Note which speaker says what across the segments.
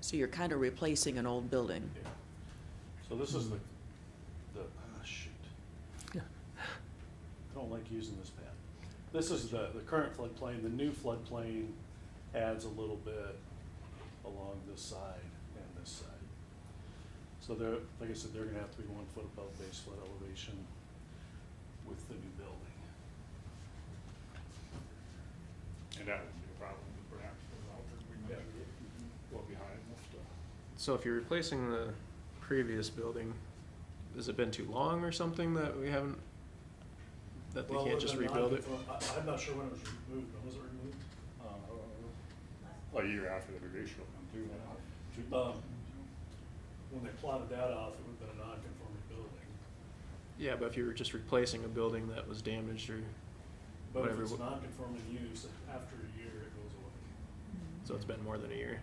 Speaker 1: So you're kind of replacing an old building.
Speaker 2: Yeah. So this is the,
Speaker 3: Hmm.
Speaker 2: the, ah, shoot. I don't like using this pad. This is the, the current floodplain, the new floodplain adds a little bit along this side and this side. So they're, like I said, they're gonna have to be one foot above base flood elevation with the new building.
Speaker 3: And that would be a problem with perhaps, because we
Speaker 2: Yeah.
Speaker 3: measured it well behind uh, most of.
Speaker 4: So if you're replacing the previous building, has it been too long or something that we haven't, that they
Speaker 2: Well,
Speaker 4: can't just
Speaker 2: whether or not
Speaker 4: rebuild it?
Speaker 2: I, I'm not sure when it was removed, when was it removed? Um, I don't remember.
Speaker 3: A year after the revision will come through now.
Speaker 2: Um, when they plotted that off, it would have been a non-conforming building.
Speaker 4: Yeah, but if you were just replacing a building that was damaged or,
Speaker 2: But if
Speaker 4: Whatever
Speaker 2: it's
Speaker 4: wo-
Speaker 2: non-conforming use, after a year, it goes away.
Speaker 4: so it's been more than a year.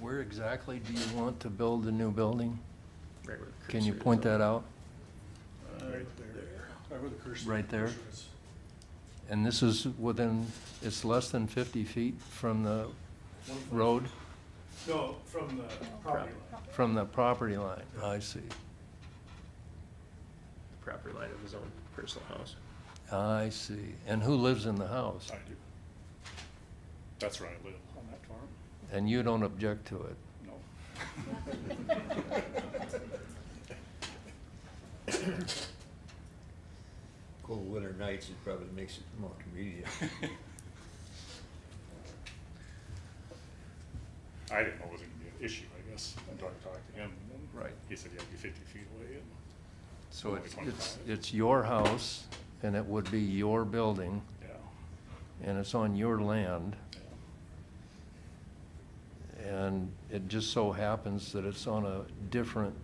Speaker 5: Where exactly do you want to build the new building?
Speaker 4: right where the
Speaker 5: Can you
Speaker 4: cursor is
Speaker 5: point
Speaker 4: up.
Speaker 5: that out?
Speaker 2: Right there. Right where the cursor.
Speaker 5: Right there?
Speaker 2: cursor is.
Speaker 5: And this is within, it's less than 50 feet from the
Speaker 2: One foot-
Speaker 5: road,
Speaker 2: No, from the property line.
Speaker 5: from the property line? I see.
Speaker 4: The property line of his own personal house.
Speaker 5: I see. And who lives in the house?
Speaker 3: I do. That's where I live, on that farm.
Speaker 5: And you don't object to it?
Speaker 3: No.
Speaker 6: Cold winter nights, it probably makes it more convenient.
Speaker 3: I didn't know it was gonna be an issue, I guess, until I talked to him. and
Speaker 5: Right.
Speaker 3: He said he had to be fifty feet away and.
Speaker 5: So it's,
Speaker 3: Only
Speaker 5: it's,
Speaker 3: 25.
Speaker 5: it's your house, and it would be your building,
Speaker 3: Yeah,
Speaker 5: and it's on your land,
Speaker 3: yeah.
Speaker 5: and it just so happens that it's on a different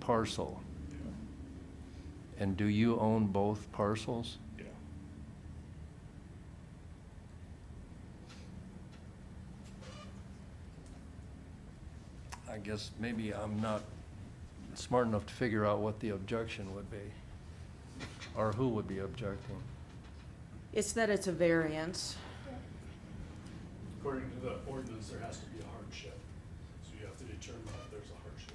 Speaker 5: parcel.
Speaker 3: Yeah.
Speaker 5: And do you own both parcels?
Speaker 3: Yeah.
Speaker 5: I guess maybe I'm not smart enough to figure out what the objection would be, or who would be objecting.
Speaker 1: It's that it's a variance.
Speaker 2: According to the ordinance, there has to be a hardship. So you have to determine if there's a hardship.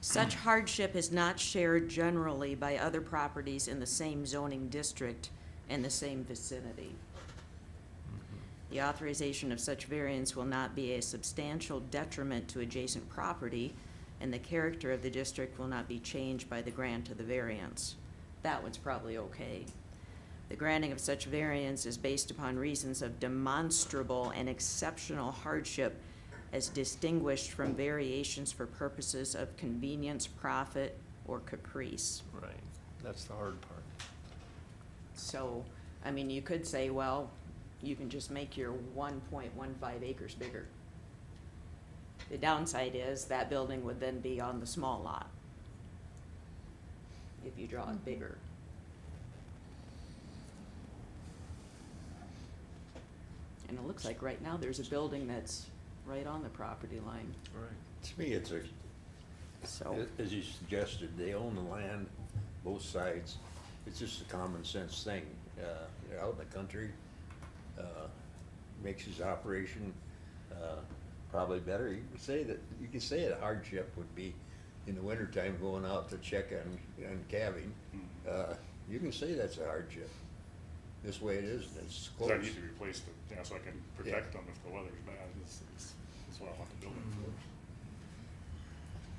Speaker 1: Such hardship is not shared generally by other properties in the same zoning district and the same vicinity. The authorization of such variance will not be a substantial detriment to adjacent property, and the character of the district will not be changed by the grant of the variance. That one's probably okay. The granting of such variance is based upon reasons of demonstrable and exceptional hardship as distinguished from variations for purposes of convenience, profit, or caprice.
Speaker 5: Right. That's the hard part.
Speaker 1: So, I mean, you could say, well, you can just make your one point one five acres bigger. The downside is that building would then be on the small lot. If you draw it bigger. And it looks like right now there's a building that's right on the property line,
Speaker 5: Right.
Speaker 6: To me, it's a,
Speaker 1: so.
Speaker 6: as you suggested, they own the land, both sides. It's just a common sense thing. Uh, They're out in the country, uh, makes his operation uh, probably better. You could say that, you could say a hardship would be in the wintertime going out to check on, on calving. Uh, You can say that's a hardship. This way it is, and it's
Speaker 3: So
Speaker 6: close.
Speaker 3: I need to replace the, yeah, so I can protect
Speaker 6: Yeah.
Speaker 3: them if the weather's bad, That's that's- that's what I want the building
Speaker 2: Mm-hmm.
Speaker 3: for.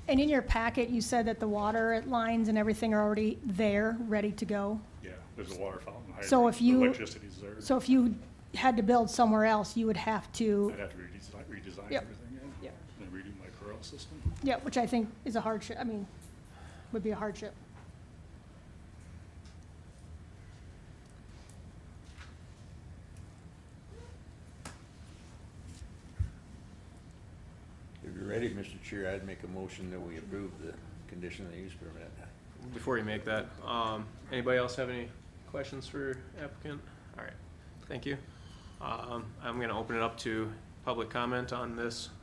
Speaker 7: And in your packet, you said that the water lines and everything are already there, ready to go.
Speaker 3: Yeah, there's a water fountain,
Speaker 7: So if
Speaker 3: hydrant,
Speaker 7: you-
Speaker 3: electricity's there.
Speaker 7: So if you had to build somewhere else, you would have to,
Speaker 3: I'd have to redesign, redesign
Speaker 7: Yep.
Speaker 3: everything, yeah.
Speaker 1: Yep.
Speaker 3: And redo my corral system.
Speaker 7: yeah, which I think is a hardship, I mean, would be a hardship.
Speaker 6: If you're ready, Mr. Chair, I'd make a motion that we approve the conditional use permit.
Speaker 4: Before you make that, um, anybody else have any questions for applicant? All right, thank you. Um, I'm gonna open it up to public comment on this